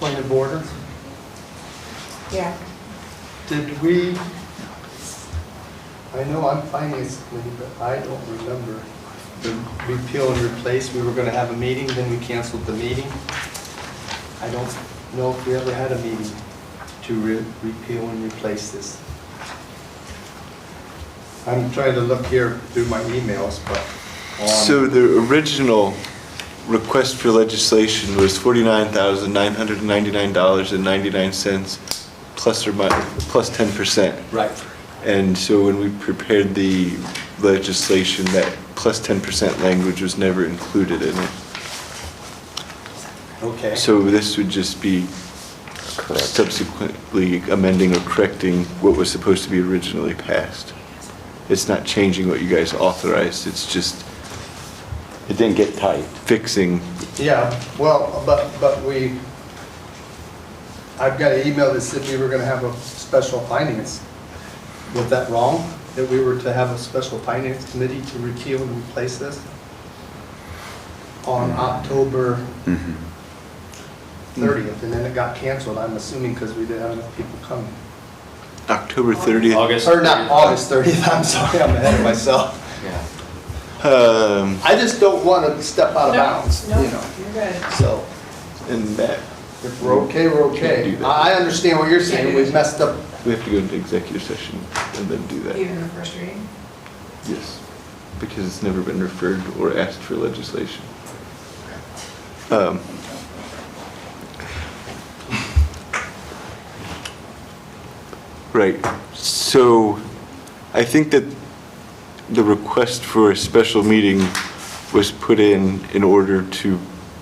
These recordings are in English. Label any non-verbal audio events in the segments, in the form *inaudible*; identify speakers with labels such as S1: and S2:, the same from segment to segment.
S1: point of order.
S2: Yeah,
S1: Did we, I know I'm finance committee, but I don't remember the repeal and replace. We were going to have a meeting, then we canceled the meeting. I don't know if we ever had a meeting to re- repeal and replace this. I'm trying to look here through my emails, but. um,
S3: So the original request for legislation was $49,999.99 plus or minus, plus 10%.
S1: Right.
S3: And so when we prepared the legislation, that plus 10% language was never included in it.
S1: Okay.
S3: So this would just be subsequently amending or correcting what was supposed to be originally passed. It's not changing what you guys authorized, it's just
S4: It didn't get typed.
S3: fixing
S1: Yeah, well, but, but we, I've got an email that said we were gonna have a special finance. Was that wrong, that we were to have a special finance committee to repeal and replace this? On October thirtieth, and then it got canceled, I'm assuming, because we didn't have enough people coming.
S3: October 30th.
S5: August.
S1: Or not August thirtieth, *laughs* I'm sorry, I'm ahead of myself.
S5: Yeah.
S3: Um,
S1: I just don't wanna step out of bounds, you
S2: no,
S1: know,
S2: you're good.
S1: so.
S3: and that,
S1: If we're okay, we're
S3: Can't
S1: okay.
S3: do that.
S1: I I understand what you're saying, we messed up.
S3: we have to go into executive session and then do that.
S2: Even the first reading?
S3: Yes, because it's never been referred or asked for legislation. Um, Right, so I think that the request for a special meeting was put in in order to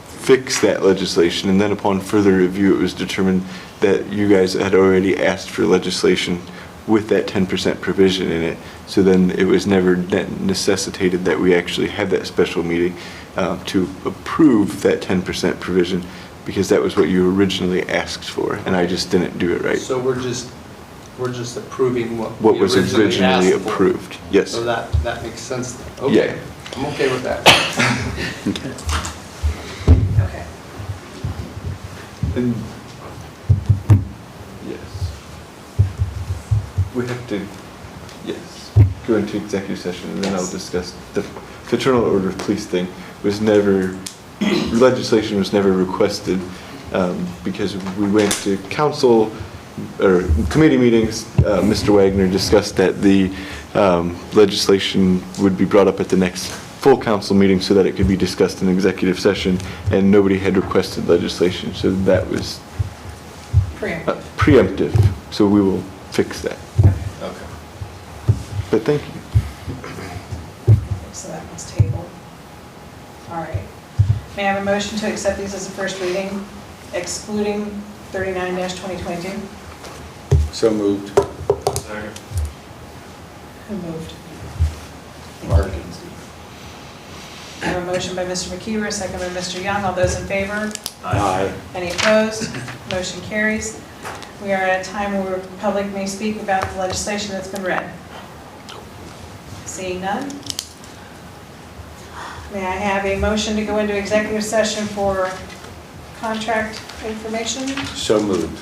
S3: fix that legislation, and then upon further review, it was determined that you guys had already asked for legislation with that 10% provision in it, so then it was never ne- necessitated that we actually had that special meeting uh, to approve that 10% provision, because that was what you originally asked for, and I just didn't do it right.
S1: So we're just, we're just approving what.
S3: What
S1: we
S3: was originally
S1: asked for.
S3: approved, yes.
S1: So that, that makes sense. then.
S3: Yeah.
S1: Okay, I'm okay with that.
S2: Okay.
S3: And, yes. We have to, yes, go into executive session and then I'll discuss the fraternal order of police thing was never, legislation was never requested um, because we went to council or committee meetings, uh, Mr. Wagner discussed that the um, legislation would be brought up at the next full council meeting so that it could be discussed in executive session, and nobody had requested legislation, so that was uh,
S2: Preemptive.
S3: preemptive, so we will fix that.
S5: Okay.
S3: But thank you.
S2: So that one's tabled. All right. May I have a motion to accept these as a first reading, excluding 39-2022?
S4: So moved.
S5: Second.
S2: Who moved?
S4: Mark.
S2: I have a motion by Mr. McKeever, a second by Mr. Young. All those in favor?
S4: Aye.
S2: Any opposed? Motion carries. We are at a time where the public may speak about the legislation that's been read. Seeing none? May I have a motion to go into executive session for contract information?
S4: So moved.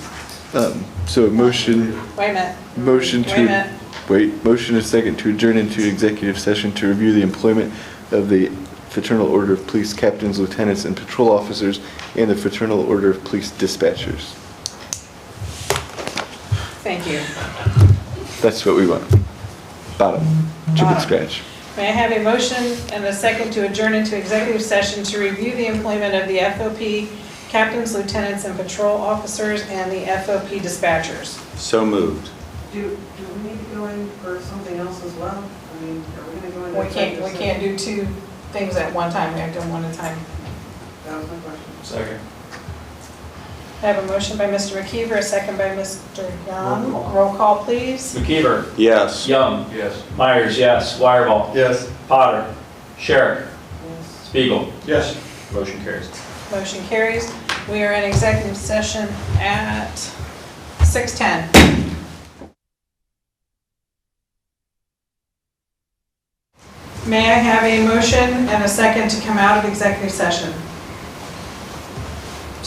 S3: Um, So a motion,
S2: Wait a minute.
S3: motion
S2: Wait a minute.
S3: to, wait, motion is second to adjourn into executive session to review the employment of the Fraternal Order of Police Captains, Lieutenants, and Patrol Officers, and the Fraternal Order of Police Dispatchers.
S2: Thank you.
S3: That's what we want. Bottom, chicken
S2: Bottom.
S3: scratch.
S2: May I have a motion and a second to adjourn into executive session to review the employment of the FOP captains, lieutenants, and patrol officers, and the FOP dispatchers?
S4: So moved.
S6: Do, do we need to go in for something else as well? I mean, are we gonna go in?
S2: We can't, we can't do two things at one time, we have to do one at a time.
S6: That was my question.
S5: Second.
S2: I have a motion by Mr. McKeever, a second by Mr. Young. Roll call, please.
S5: McKeever.
S4: Yes.
S5: Young. Yes. Myers, yes. Wireball.
S1: Yes.
S5: Potter. Sherrick.
S6: Yes.
S5: Spiegel. Yes. Motion carries.
S2: Motion carries. We are in executive session at 6:10. May I have a motion and a second to come out of executive session?